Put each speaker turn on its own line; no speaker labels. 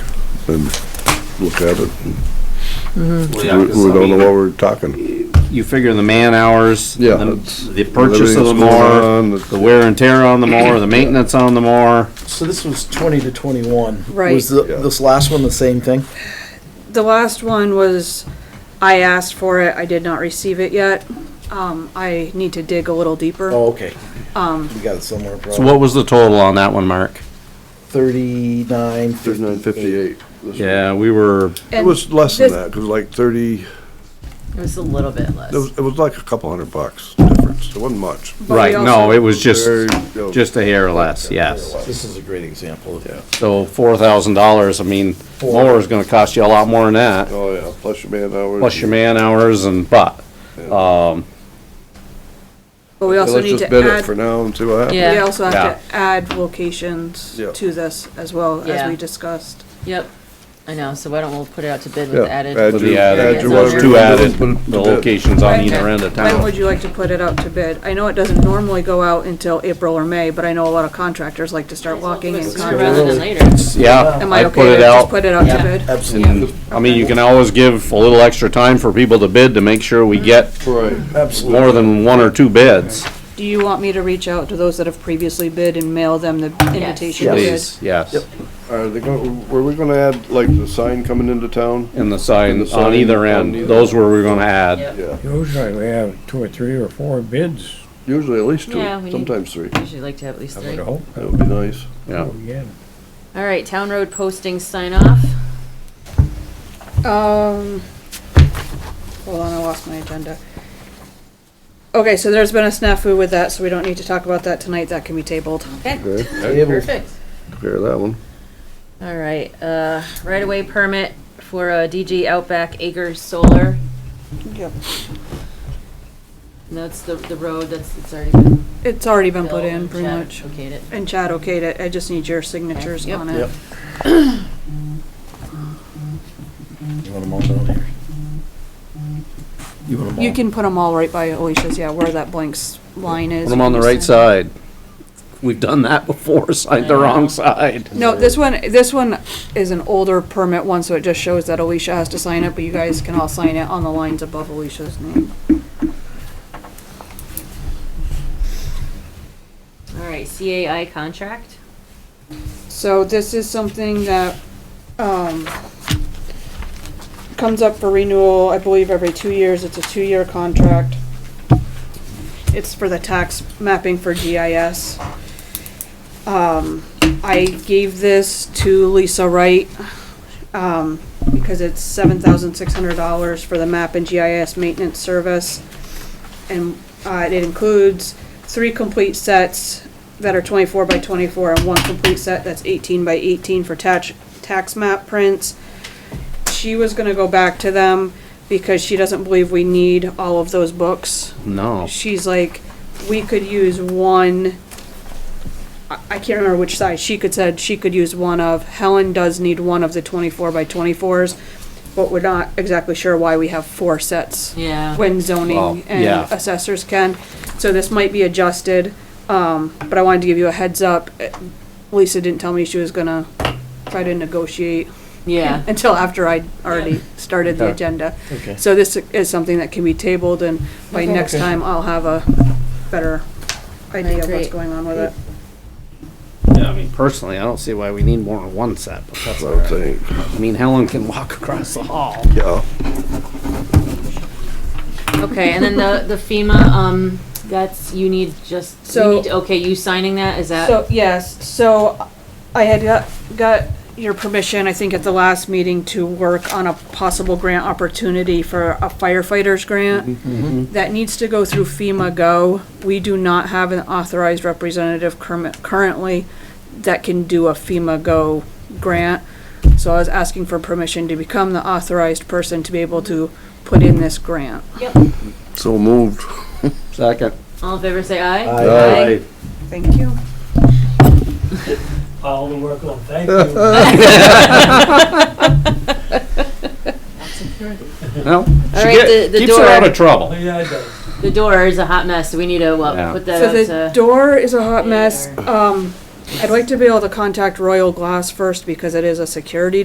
and look at it.
Well,
We
yeah, 'cause,
we don't
I mean,
know what we're talking.
You figure the man hours,
Yeah,
the
it's-
the purchase of the
everything's going on,
mower,
it's-
the wear and tear on the mower, the maintenance on the mower.
So this was twenty to twenty-one.
Right.
Was the-
Yeah.
this last one the same thing?
The last one was, I asked for it, I did not receive it yet. Um, I need to dig a little deeper.
Oh, okay. Um. You got it somewhere,
So
probably.
what was the total on that one, Mark?
Thirty-nine,
Thirty-nine
fifty-eight.
fifty-eight.
Yeah, we were,
It
And
was less than
this-
that, cause like thirty,
It was a little bit less.
it was, it was like a couple hundred bucks difference. It wasn't much.
but we
right, no,
also-
it was just,
Very, you know,
just a hair less, yes.
This is a great example of that.
So four thousand dollars, I mean,
Four.
mower's gonna cost you a lot more than that,
Oh, yeah, plus your man hours.
plus your man hours and, but, um,
But we also need to
Let's just bid it
add,
for now and see what happens.
we
Yeah.
also
Yeah.
have to add locations
Yeah.
to this as well, as
Yeah.
we discussed.
Yep, I know, so why don't we put it out to bid
Yeah,
with added?
add
with
your-
the
add
added,
your
Yeah.
those
whatever
two
you
added,
do, put it to
the
bid.
locations on
Right.
either end of
When
town.
would you like to put it out to bid? I know it doesn't normally go out until April or May, but I know a lot of contractors like to start walking in
Sooner
contracts.
Rather than later.
Yeah,
Am I
I
okay
put
to
it
just
out,
put it out to
Yeah.
bid?
Absolutely,
I mean, you can always give a little extra time for people to bid to make sure
Mm-hmm.
we get
Right,
absolutely.
more than one or two bids.
Do you want me to reach out to those that have previously bid and mail them the invitation to bid?
Please, yes.
are they going, were we gonna add like the sign coming into town?
And the
And the
sign
sign
on either
on
end,
either-
those were we're gonna add.
Yep.
Yeah,
Usually we have two or three or four bids,
usually at least two,
Yeah, we need-
sometimes three.
Usually like to have at least
I
three.
would
All
hope, Oh,
That would be nice.
Yeah.
we get 'em.
right, town road posting sign off.
Um, hold on, I lost my agenda. Okay, so there's been a snafu with that, so we don't need to talk about that tonight. That can be tabled.
Okay,
Okay,
Able-
perfect.
clear that one.
All right, uh, right away permit for uh, DG Outback Acres Solar.
Yep.
And That's the, the road that's, it's already been.
It's already been put
built
in,
and
pretty
Chad
much.
okayed it.
And Chad okayed it. I just need your signatures
Yep.
on
Yep.
it.
You want them all down here? You want them all?
You can put them all right by Alicia's, yeah, where that blank s- line is.
Put them on the
you
right
sign.
side. We've done that before, signed the wrong side.
No, this one, this one is an older permit one, so it just shows that Alicia has to sign it, but you guys can all sign it on the lines above Alicia's name.
All right, CAI contract.
So this is something that, um, comes up for renewal, I believe, every two years. It's a two-year contract. It's for the tax mapping for GIS. Um, I gave this to Lisa Wright, um, because it's seven thousand six hundred dollars for the map and GIS maintenance service. And, uh, it includes three complete sets that are twenty-four by twenty-four and one complete set that's eighteen by eighteen for tax, tax map prints. She was gonna go back to them because she doesn't believe we need all of those books
No.
she's like, we could use one. I, I can't remember which size. She could said she could use one of. Helen does need one of the twenty-four by twenty-fours, but we're not exactly sure why we have four sets
Yeah.
when
Well,
zoning
yeah.
and assessors can. So this might be adjusted, um, but I wanted to give you a heads up. Eh, Lisa didn't tell me she was gonna try to negotiate
Yeah.
until after I already started the
Yeah.
agenda.
Okay.
So this is something that can be tabled, and by
Okay.
next
Okay.
time, I'll have a better idea of what's
great.
going on with it.
Yeah, I mean, personally, I don't see why we need more than one set, but that's
That's
all
what I'm
right.
saying.
I mean, Helen can walk across the hall.
Yeah,
Okay, and then the, the FEMA, um, that's, you need just, you
So-
need, to- okay, you signing that, is that?
So, yes, so I had got, got your permission, I think at the last meeting, to work on a possible grant opportunity for a firefighters grant. That needs to go through FEMA Go. We do not have an authorized representative curm- currently that can do a FEMA Go grant. So I was asking for permission to become the authorized person to be able to put in this grant.
Yep.
so moved.
Second.
All in favor, say aye.
Aye.
Thank you.
all the work on, thank you.
Well,
All
she
right,
get-
the- the
keeps her out
door.
of trouble.
Yeah, I did.
The door is a hot mess, so we need to,
Yeah.
uh, put that
So the
out to,
door is a hot mess.
Yeah.
Um, I'd like to be able to contact Royal Glass first because it is a security